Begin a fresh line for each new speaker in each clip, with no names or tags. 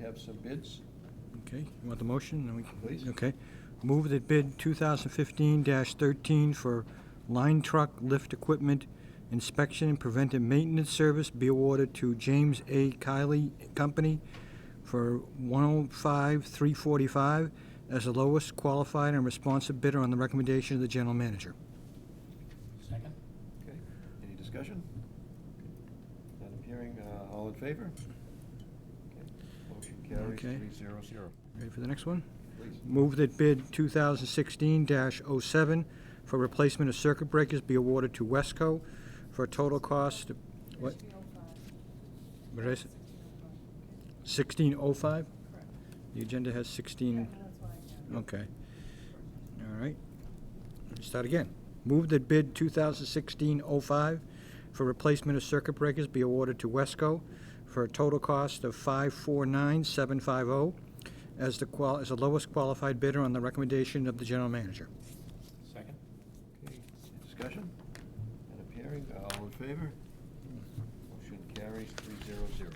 have some bids.
Okay, you want the motion? Then we can-
Please.
Okay. Move that bid 2015-13 for line truck lift equipment inspection and preventive maintenance service be awarded to James A. Kiley Company for 105,345 as the lowest qualified and responsive bidder on the recommendation of the general manager.
Second?
Okay, any discussion? Not appearing, uh, all in favor? Okay. Motion carries
Okay.
three zero zero.
Ready for the next one?
Please.
Move that bid 2016-07 for replacement of circuit breakers be awarded to Wesco for a total cost, what,
1605.
What did I say?
1605,
1605?
correct.
The agenda has
Yeah,
16,
that's what I got.
okay. All right. Let me Start again. Move that bid 2016-05 for replacement of circuit breakers be awarded to Wesco for a total cost of 549750 as the qual, as the lowest qualified bidder on the recommendation of the general manager.
Second?
Okay, any discussion? Not appearing, uh, all in favor? Motion carries three zero zero.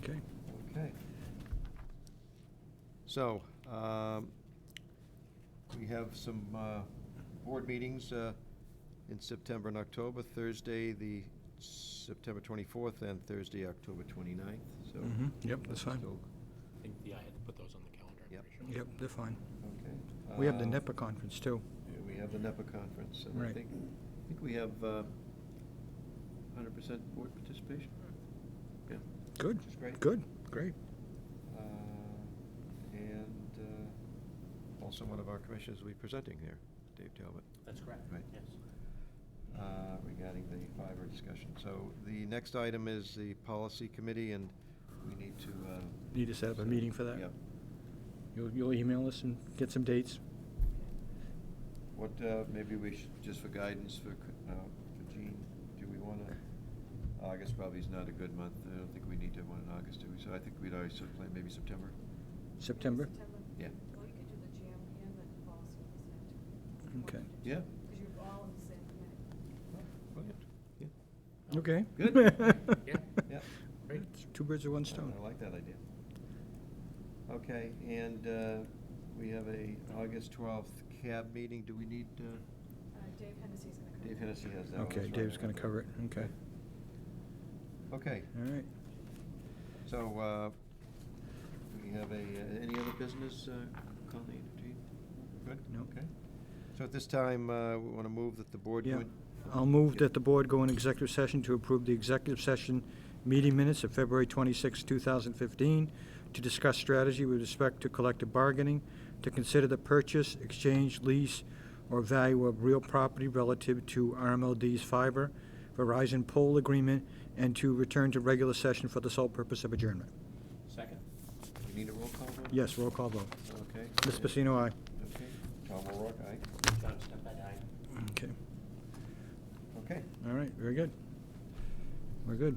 Okay.
Okay. So, um, we have some uh, board meetings uh, in September and October, Thursday, the September 24th, and Thursday, October 29th, so.
Mhm, yep, that's fine.
still-
I think the I had to put those on the calendar. I'm
Yep.
pretty sure.
Yep, they're fine.
Okay.
We have the
Um,
NEPA conference, too.
yeah, We have the NEPA conference, and I
Right.
think, I think we have uh, 100% board participation. Yeah.
Good.
Which is great.
Good, great.
Uh, And uh, also one of our commissioners will be presenting here, Dave Talbot,
That's correct.
Right.
Yes.
uh, regarding the fiber discussion. So the next item is the policy committee, and we need to. uh,
Need to set up a meeting for that?
Yep.
You'll, you'll email us and get some dates?
What, uh, maybe we should, just for guidance for uh, for Gene, do we want to, August probably is not a good month. I don't think we need to have one in August, do we? So I think we'd already sort of plan maybe September.
September?
Yeah.
Well, you could do the jam and the policy at the same time.
Okay.
Yeah.
Because you're all in the same committee.
Brilliant. Yeah.
Okay.
Good.
Yeah.
Yeah.
Great.
It's Two birds with one stone.
I like that idea. Okay, and uh, we have a August 12th cab meeting. Do we need, uh,
Uh, Dave Hennessey's going to come.
Dave Hennessy has that one.
Okay,
that's right.
Dave's gonna cover it, okay.
Okay,
All right.
so uh, we have a, uh, any other business, uh, Colleen, do you? Good?
No.
Okay. So at this time, uh, we want to move that the board.
Yeah.
would-
I'll move that the board go in executive session to approve the executive session meeting minutes of February 26, 2015, to discuss strategy with respect to collective bargaining, to consider the purchase, exchange, lease, or value of real property relative to RMLD's fiber, Verizon pole agreement, and to return to regular session for the sole purpose of adjournment.
Second?
We need a roll call vote?
Yes, roll call vote.
Okay.
Ms. Pacino, aye.
Okay, Tom O'Rourke, aye.
John Stempad, aye.
Okay,
Okay.
all right, very good. We're good.